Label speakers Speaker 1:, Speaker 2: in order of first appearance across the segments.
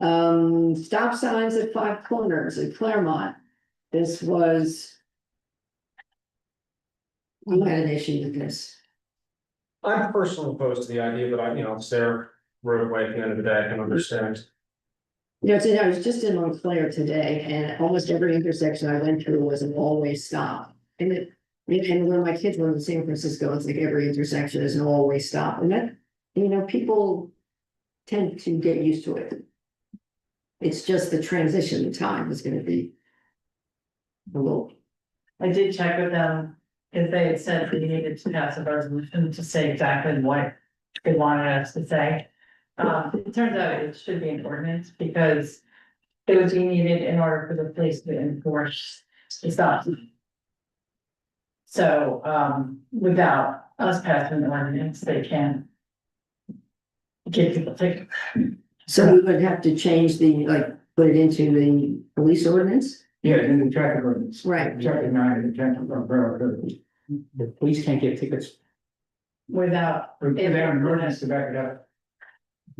Speaker 1: Um, stop signs at five corners at Claremont. This was. You had an issue with this.
Speaker 2: I'm personally opposed to the idea, but I, you know, it's their roadway at the end of the day, I can understand.
Speaker 1: You know, today I was just in Montclair today and almost every intersection I went through was an always stop. And it, and when my kids went to San Francisco, it's like every intersection is an always stop and that, you know, people. Tend to get used to it. It's just the transition time is gonna be. A little
Speaker 3: I did check with them, because they had said we needed to pass a resolution to say exactly what they wanted us to say. Um, it turns out it should be an ordinance, because it would be needed in order for the police to enforce the stop. So, um, without us passing an ordinance, they can give people tickets.
Speaker 1: So we would have to change the, like, put it into the police ordinance?
Speaker 4: Yeah, in the traffic ordinance.
Speaker 1: Right.
Speaker 4: Chapter nine of the traffic or borough code. The police can't get tickets
Speaker 3: without,
Speaker 4: for, they have an ordinance to back it up.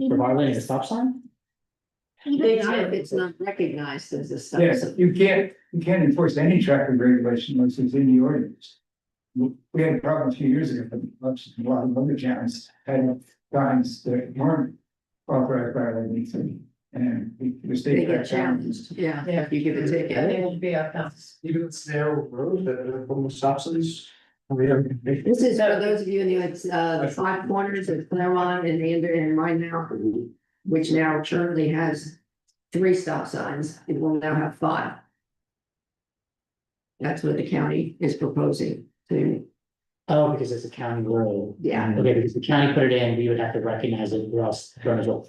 Speaker 5: For violating a stop sign?
Speaker 3: They
Speaker 1: Not
Speaker 3: did.
Speaker 1: If it's not recognized as a stop
Speaker 4: Yes,
Speaker 1: sign.
Speaker 4: you can't, you can't enforce any traffic regulation unless it's in the ordinance. We we had a problem a few years ago, but lots- a lot of other towns had signs that weren't authorized by our ordinance. And the- the
Speaker 1: They
Speaker 4: state.
Speaker 1: get challenged, yeah,
Speaker 3: Yeah.
Speaker 1: if you give a ticket.
Speaker 3: it would be a offense.
Speaker 2: Even if it's their road that uh, the woman stops us. We have.
Speaker 1: This is for those of you in the, it's, uh, the five corners of Claremont and Ander and mine now, which now currently has three stop signs, it will now have five. That's what the county is proposing to,
Speaker 5: Oh, because it's a county road.
Speaker 1: yeah,
Speaker 5: Okay, because the county put it in, we would have to recognize it, or else runners will.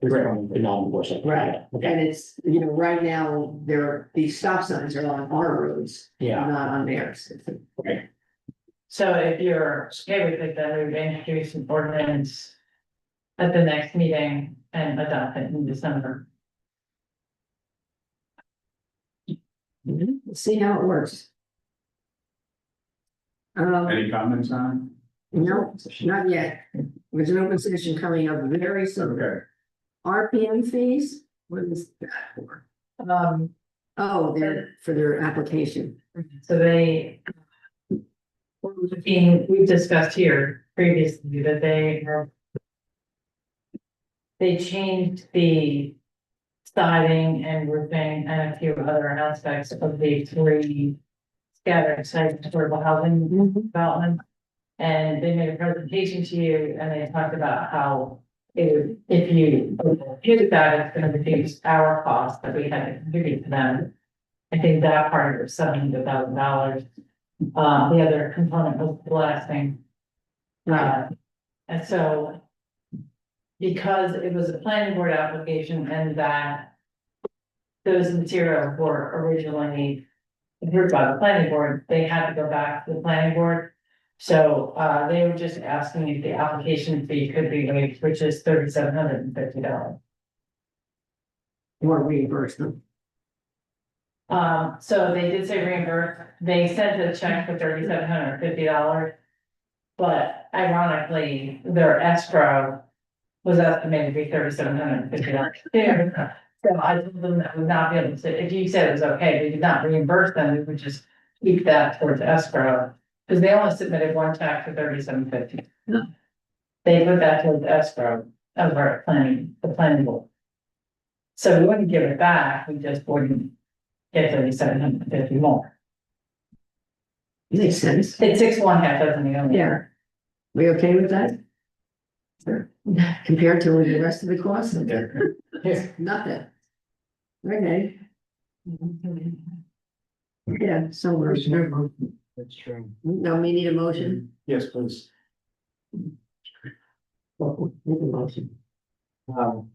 Speaker 5: Could not enforce it.
Speaker 1: Right.
Speaker 5: Okay,
Speaker 1: and it's, you know, right now, there, these stop signs are on our roads.
Speaker 5: yeah,
Speaker 1: Not on theirs.
Speaker 3: So if you're okay with it, then we would introduce an ordinance at the next meeting and adopt it in December.
Speaker 1: Let's See how it works. Um,
Speaker 4: Any comments on?
Speaker 1: no, not yet. There's an open session coming up very soon.
Speaker 4: Okay.
Speaker 1: RPM fees, what is that for?
Speaker 3: Um,
Speaker 1: Oh, they're for their application.
Speaker 3: so they we're looking, we've discussed here previously that they are they changed the siding and roofing and a few other aspects of the three scattered site affordable housing
Speaker 1: Mm-hmm.
Speaker 3: development. And they made a presentation to you and they talked about how it would, if you did that, it's gonna reduce our cost that we had to contribute to them. I think that part was seven hundred thousand dollars. Uh, the other component was blasting. Uh, and so because it was a planning board application and that those materials were originally approved by the planning board, they had to go back to the planning board. So, uh, they were just asking if the application fee could be waived, which is thirty-seven hundred and fifty dollars.
Speaker 1: Or reimburse them.
Speaker 3: Um, so they did say reimburse, they sent a check for thirty-seven hundred and fifty dollars. But ironically, their escrow was estimated to be thirty-seven hundred and fifty dollars. So I told them that would not be able to, if you said it was okay, we did not reimburse them, we would just keep that towards escrow. Cause they only submitted one check for thirty-seven fifty.
Speaker 1: Yeah.
Speaker 3: They put that towards escrow of our planning, the planning board. So we wouldn't give it back, we just wouldn't get thirty-seven hundred fifty more.
Speaker 1: Makes sense.
Speaker 3: It's six one half dozen the other.
Speaker 1: Yeah. We okay with that? Sure. Compared to the rest of the costs?
Speaker 4: Yeah.
Speaker 1: Nothing. Okay, yeah, so we're,
Speaker 4: That's true.
Speaker 1: no, we need a motion.
Speaker 4: Yes, please.
Speaker 1: Well, Make a motion.
Speaker 4: Um,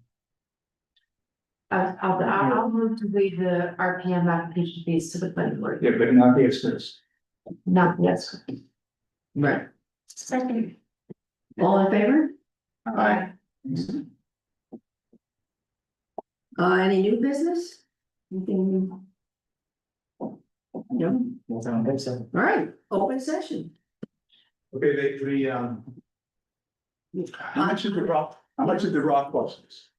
Speaker 6: I'll, I'll, I'll move to waive the RPM application fees to the planning board,
Speaker 4: yeah, but not the extras.
Speaker 6: not yes.
Speaker 1: Right.
Speaker 6: Second.
Speaker 1: All in favor?
Speaker 6: Aye.
Speaker 1: Uh, any new business? Anything? No, all
Speaker 4: Well, I don't think so.
Speaker 1: right, open session.
Speaker 7: Okay, they, the, um. How much did the rock, how much did the rock cost us?